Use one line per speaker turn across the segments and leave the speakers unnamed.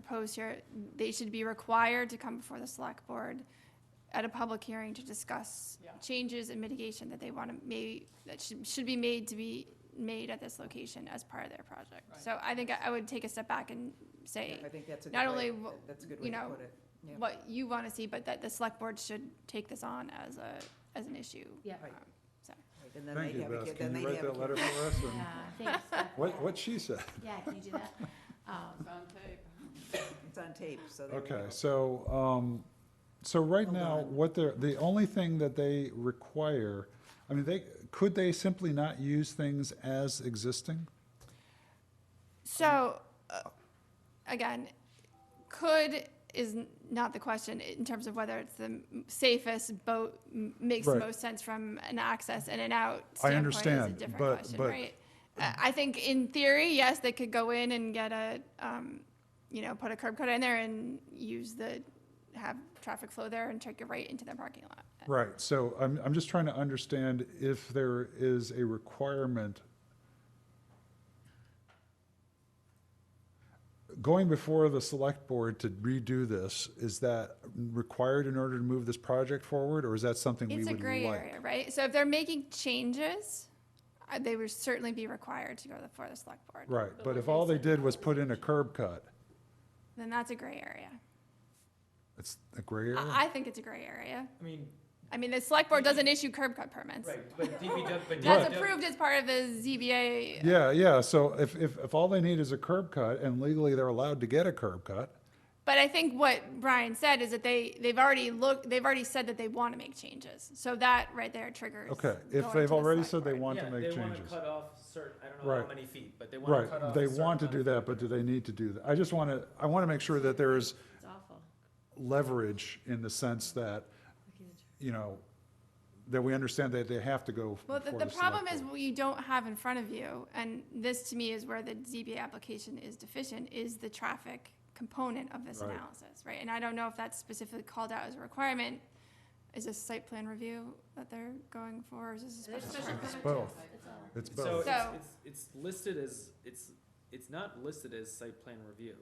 proposed here, they should be required to come before the select board at a public hearing to discuss
Yeah.
changes and mitigation that they want to may, that should, should be made to be made at this location as part of their project.
Right.
So I think I- I would take a step back and say,
I think that's a
not
good
only
way,
wh-
that's a good
you
way to
know,
put it. Yeah.
what you want to see, but that the select board should take this on as a, as an issue.
Yeah.
Right.
Um, So,
Right, And then
Thank
they'd
you,
have a
Beth.
kid, then
Can you
they'd
write
have
that
a
letter
kid.
for us? and-
Yeah, thanks. Beth.
What, what she said.
Yeah, can you do that? Um,
It's on tape.
It's on tape, so. there you
Okay,
go.
so, um, so right
Hold
now,
on.
what they're, the only thing that they require, I mean, they, could they simply not use things as existing?
So, uh, again, could is n- not the question in terms of whether it's the m- safest boat m- makes the
Right.
most sense from an access in and out
I
standpoint is a
understand,
different
but-
question,
but-
right? I I think in theory, yes, they could go in and get a, um, you know, put a curb cut in there and use the, have traffic flow there and take it right into their parking lot.
Right, so I'm, I'm just trying to understand if there is a requirement going before the select board to redo this, is that required in order to move this project forward, or is that something we
It's a
would
gray
like?
area, right? So if they're making changes, uh, they would certainly be required to go before the select board.
Right, but if all they did was put in a curb cut,
Then that's a gray area.
it's a gray area?
I, I think it's a gray area.
I mean,
I mean, the select board doesn't issue curb cut permits.
right, but DPW, but
That's
Right.
DPW,
approved as part of the ZBA.
Yeah, yeah, so if, if, if all they need is a curb cut, and legally they're allowed to get a curb cut,
But I think what Brian said is that they, they've already looked, they've already said that they want to make changes. So that right there triggers.
okay,
going
if
to
they've
the
already
select
said they
board.
want
yeah,
to make
they wanna
changes.
cut off certain, I don't know
Right.
how many feet, but they wanna cut off.
Right, they
a certain
want to do
amount of
that, but do they need to do that? I just want to, I want to make sure that there is
It's awful.
leverage in the sense that, you know, that we understand that they have to go
Well,
before
the, the
select
problem is
board.
what you don't have in front of you, and this to me is where the ZBA application is deficient, is the traffic component of this
Right.
analysis, right? And I don't know if that's specifically called out as a requirement. Is this site plan review that they're going for, or is this a special?
It's both, it's
So
both.
So-
it's, it's, it's listed as, it's, it's not listed as site plan review.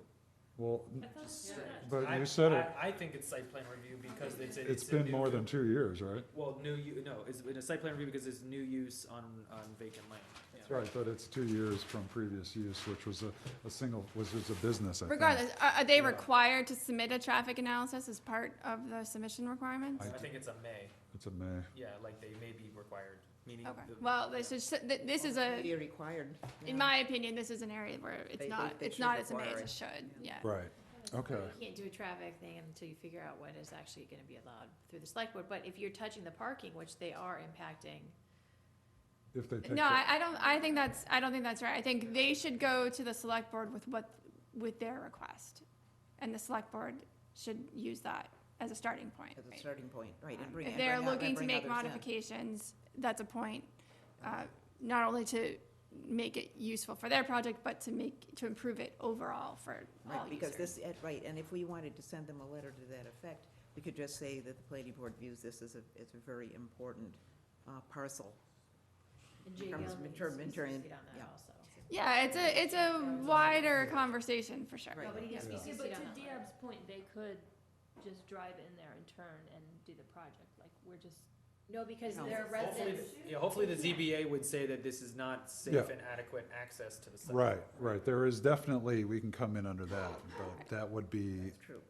Well,
Just strange.
but
I-
you said it,
I, I think it's site plan review because it's, a-
it's
a
been
new
more
u-
than two years, right?
Well, new, u- no, it's been a site plan review because it's new use on, on vacant land. yeah.
Right, but it's two years from previous use, which was a, a single, was just a business, I think.
Regardless, are, are they
Yeah.
required to submit a traffic analysis as part of the submission requirements?
I
I think it's a may,
It's a May.
yeah, like they may be required, meaning.
Okay,
the-
well,
yeah.
this is, th- this is a,
You're required. yeah.
in my opinion, this is an area where
They-
it's
they-
not,
they
it's
should
not as amazing
require
as it should, yeah.
Right, okay.
You can't do a traffic thing until you figure out what is actually gonna be allowed through the select board, but if you're touching the parking, which they are impacting,
If they take,
No,
the-
I, I don't, I think that's, I don't think that's right. I think they should go to the select board with what, with their request. And the select board should use that as a starting point.
As a
right?
starting point, right, and
Um,
bring,
If
and
they're
bring out-
looking
and
to
bring
make
others in.
modifications, that's a point, uh, not only to make it useful for their project, but to make, to improve it overall for all
Right, because
users.
this, at- right, and if we wanted to send them a letter to that effect, we could just say that the planning board views this as a, as a very important uh, parcel.
and JL
Becomes
needs to be
midterm-
CC'd
midterm,
on
yeah.
that also.
Yeah, it's a, it's a wider conversation for sure.
Right.
No, but he has to be
Yeah.
Yeah,
CC'd
but
on
to
that letter.
Deob's point, they could just drive in there and turn and do the project, like, we're just.
No, because
No.
they're
Hopefully,
residents,
the- yeah, hopefully the ZBA would say that this is not safe
Yeah.
and adequate access to the site.
right, right, there is definitely, we can come in under that, but that would be,
That's true.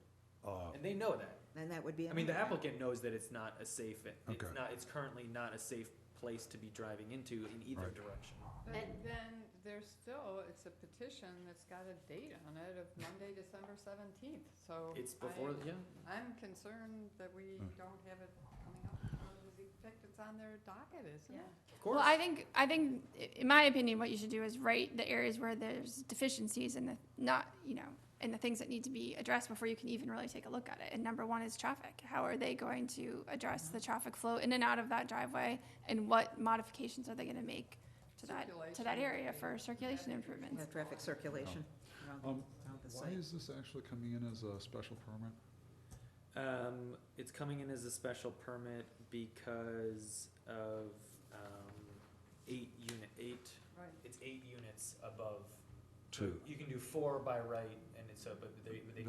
uh,
And they know that.
And that would be.
I mean, the
another-
applicant knows that it's not a safe, it's
Okay.
not, it's currently not a safe place to be driving into in either
Right.
direction.
But
And-
then there's still, it's a petition that's got a date on it of Monday, December seventeenth, so.
It's before,
I-
yeah,
I'm concerned that we
Hmm.
don't have it coming up before the effect it's on their docket, isn't
yeah.
it?
of course.
Well, I think, I think, i- in my opinion, what you should do is write the areas where there's deficiencies and the, not, you know, and the things that need to be addressed before you can even really take a look at it. And number one is traffic. How are they going to address the traffic flow in and out of that driveway? And what modifications are they gonna make to that, to that
Circulation.
area for circulation improvements?
Yeah, Traffic circulation around
Um,
the- around the
Why
site.
is this actually coming in as a special permit?
Um, it's coming in as a special permit because of, um, eight unit, eight,
Right.
it's eight units above
two.
You can do four by right, and it's, uh, but they, they